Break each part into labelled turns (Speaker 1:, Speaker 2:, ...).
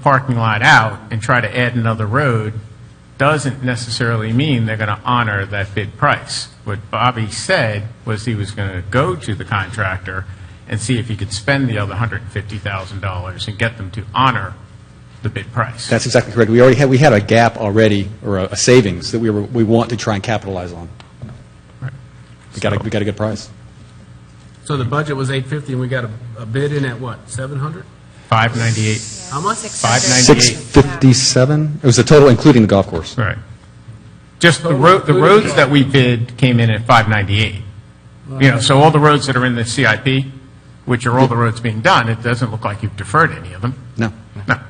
Speaker 1: parking lot out and try to add another road doesn't necessarily mean they're going to honor that bid price. What Bobby said was he was going to go to the contractor and see if he could spend the other $150,000 and get them to honor the bid price.
Speaker 2: That's exactly correct. We already had, we had a gap already, or a a savings, that we were, we want to try and capitalize on. We got a, we got a good price.
Speaker 3: So the budget was eight fifty, and we got a, a bid in at what, seven hundred?
Speaker 1: 598,
Speaker 3: How much?
Speaker 1: 598.
Speaker 2: 657? It was the total, including the golf course.
Speaker 1: Right. Just the road, the roads that we bid came in at 598. You know, so all the roads that are in the CIP, which are all the roads being done, it doesn't look like you've deferred any of them.
Speaker 2: No.
Speaker 1: No.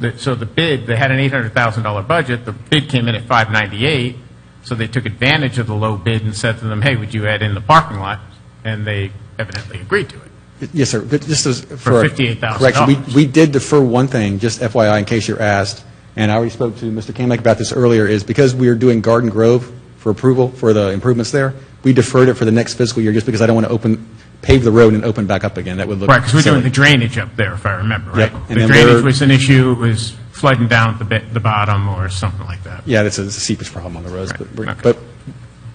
Speaker 1: The- So the bid, they had an $800,000 budget, the bid came in at 598, so they took advantage of the low bid and said to them, hey, would you add in the parking lot? And they evidently agreed to it.
Speaker 2: Yes, sir. But just as.
Speaker 1: For $58,000.
Speaker 2: Correction. We, we did defer one thing, just FYI, in case you're asked, and I already spoke to Mr. Kamek about this earlier, is because we are doing Garden Grove for approval, for the improvements there, we deferred it for the next fiscal year, just because I don't want to open, pave the road and open back up again. That would look.
Speaker 1: Right, because we're doing
Speaker 2: silly.
Speaker 1: the drainage up there, if I remember, right?
Speaker 2: Yep. And
Speaker 1: The
Speaker 2: then we're-
Speaker 1: drainage was an issue, it was flooding down at the bit- the bottom or something like that.
Speaker 2: Yeah, that's a it's a seepage problem on the roads, but, we're-
Speaker 1: okay.
Speaker 2: but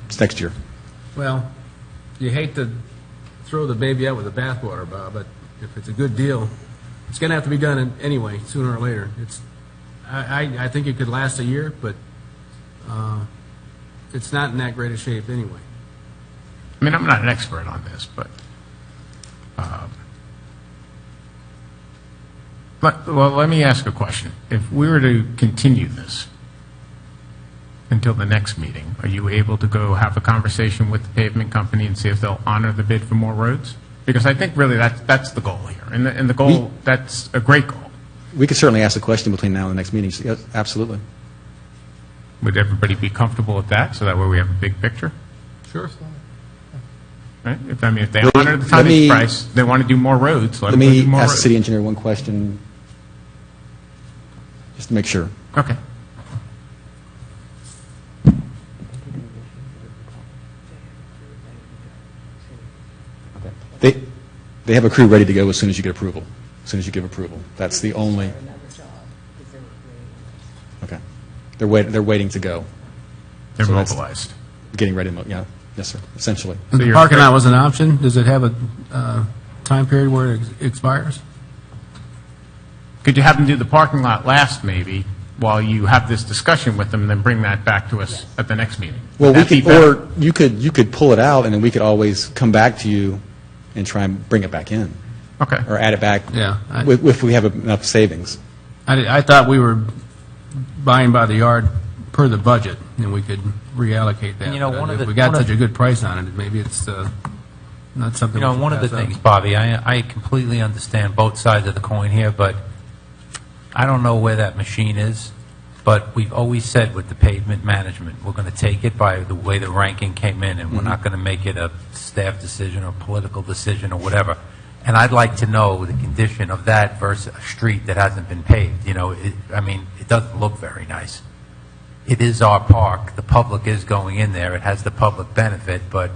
Speaker 2: it's next year.
Speaker 3: Well, you hate to throw the baby out with the bathwater, Bob, but if it's a good deal, it's gonna have to be done in- anyway, sooner or later. It's, I, I, I think it could last a year, but, uh, it's not in that great a shape anyway.
Speaker 1: I mean, I'm not an expert on this, but, um, but, well, let me ask a question. If we were to continue this until the next meeting, are you able to go have a conversation with the pavement company and see if they'll honor the bid for more roads? Because I think really that's, that's the goal here, and the, and the goal, that's a great goal.
Speaker 2: We could certainly ask the question between now and the next meeting, So, yes, absolutely.
Speaker 1: Would everybody be comfortable with that, so that way we have a big picture?
Speaker 3: Sure.
Speaker 1: Right? If, I mean, if they
Speaker 2: Let me-
Speaker 1: honor the
Speaker 2: let me-
Speaker 1: tonnage price, they want to do more roads, let
Speaker 2: Let
Speaker 1: them go do
Speaker 2: me
Speaker 1: more
Speaker 2: ask the
Speaker 1: roads.
Speaker 2: city engineer one question, just to make sure.
Speaker 1: Okay.
Speaker 2: They, they have a crew ready to go as soon as you get approval, as soon as you give approval. That's the only, okay. They're waiting, they're waiting to go,
Speaker 1: They're
Speaker 2: So that's-
Speaker 1: mobilized.
Speaker 2: getting ready, to mo- yeah, yes, sir, essentially.
Speaker 1: So
Speaker 3: The
Speaker 1: you're-
Speaker 3: parking lot was an option. Does it have a, uh, time period where it ex- expires?
Speaker 1: Could you have them do the parking lot last, maybe, while you have this discussion with them, and then bring that back to us at the next meeting?
Speaker 2: Well,
Speaker 1: Would
Speaker 2: we
Speaker 1: that be
Speaker 2: could,
Speaker 1: better?
Speaker 2: or you could, you could pull it out, and then we could always come back to you and try and bring it back in,
Speaker 1: Okay.
Speaker 2: or add it back.
Speaker 3: Yeah, I-
Speaker 2: If, if we have enough savings.
Speaker 3: I, did- I thought we were buying by the yard per the budget, and we could reallocate that.
Speaker 4: And you know,
Speaker 3: But
Speaker 4: one of
Speaker 3: If
Speaker 4: the-
Speaker 3: we got
Speaker 4: one of-
Speaker 3: such a good price on it, maybe it's uh, not something.
Speaker 4: You know,
Speaker 3: we should
Speaker 4: one of the
Speaker 3: pass up.
Speaker 4: things, Bobby, I, I completely understand both sides of the coin here, but I don't know where that machine is, but we've always said with the pavement management, we're going to take it by the way the ranking came in, and we're not going to make it a staff decision or political decision or whatever. And I'd like to know the condition of that versus a street that hasn't been paved, you know, it, I mean, it doesn't look very nice. It is our park, the public is going in there, it has the public benefit, but,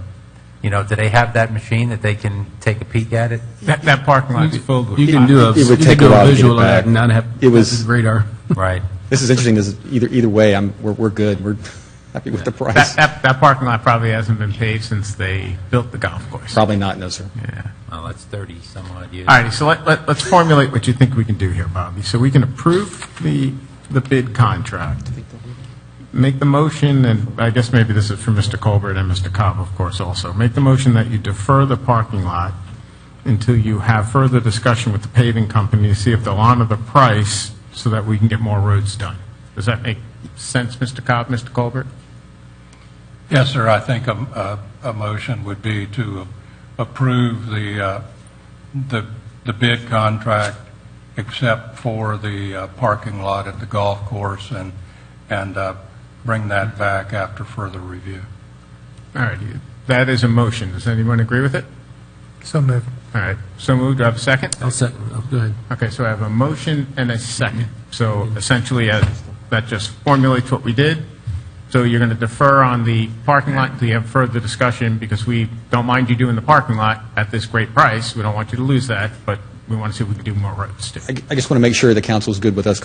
Speaker 4: you know, do they have that machine that they can take a peek at it?
Speaker 1: That, that parking lot's filled with...
Speaker 3: You can do a,
Speaker 2: It would
Speaker 3: you can
Speaker 2: take a
Speaker 3: do
Speaker 2: while to get
Speaker 3: a
Speaker 2: it
Speaker 3: visual of
Speaker 2: back.
Speaker 3: that and not have
Speaker 2: It was-
Speaker 3: radar.
Speaker 4: Right.
Speaker 2: This is interesting, this is, either, either way, I'm, we're, we're good, we're happy with the
Speaker 1: That,
Speaker 2: price.
Speaker 1: that, that parking lot probably hasn't been paved since they built the golf course.
Speaker 2: Probably not, no, sir.
Speaker 1: Yeah.
Speaker 4: Well, that's 30 some odd years.
Speaker 1: All righty, so let, let- let's formulate what you think we can do here, Bobby. So we can approve the, the bid contract, make the motion, and I guess maybe this is for Mr. Colbert and Mr. Cobb, of course, also. Make the motion that you defer the parking lot until you have further discussion with the paving company to see if they'll honor the price so that we can get more roads done. Does that make sense, Mr. Cobb, Mr. Colbert?
Speaker 5: Yes, sir, I think a, a, a motion would be to approve the, uh, the, the bid contract except for the uh, parking lot at the golf course and, and, uh, bring that back after further review.
Speaker 1: All righty, that is a motion. Does anyone agree with it?
Speaker 3: So moved.
Speaker 1: All right, so moved, do I have a second?
Speaker 3: I'll second, oh, go ahead.
Speaker 1: Okay, so I have a motion and a second. So essentially, uh, that just formulates what we did. So you're going to defer on the parking lot until you have further discussion, because we don't mind you doing the parking lot at this great price. We don't want you to lose that, but we want to see if we can do more roads, too.
Speaker 2: I, I just want to make sure the council's good with us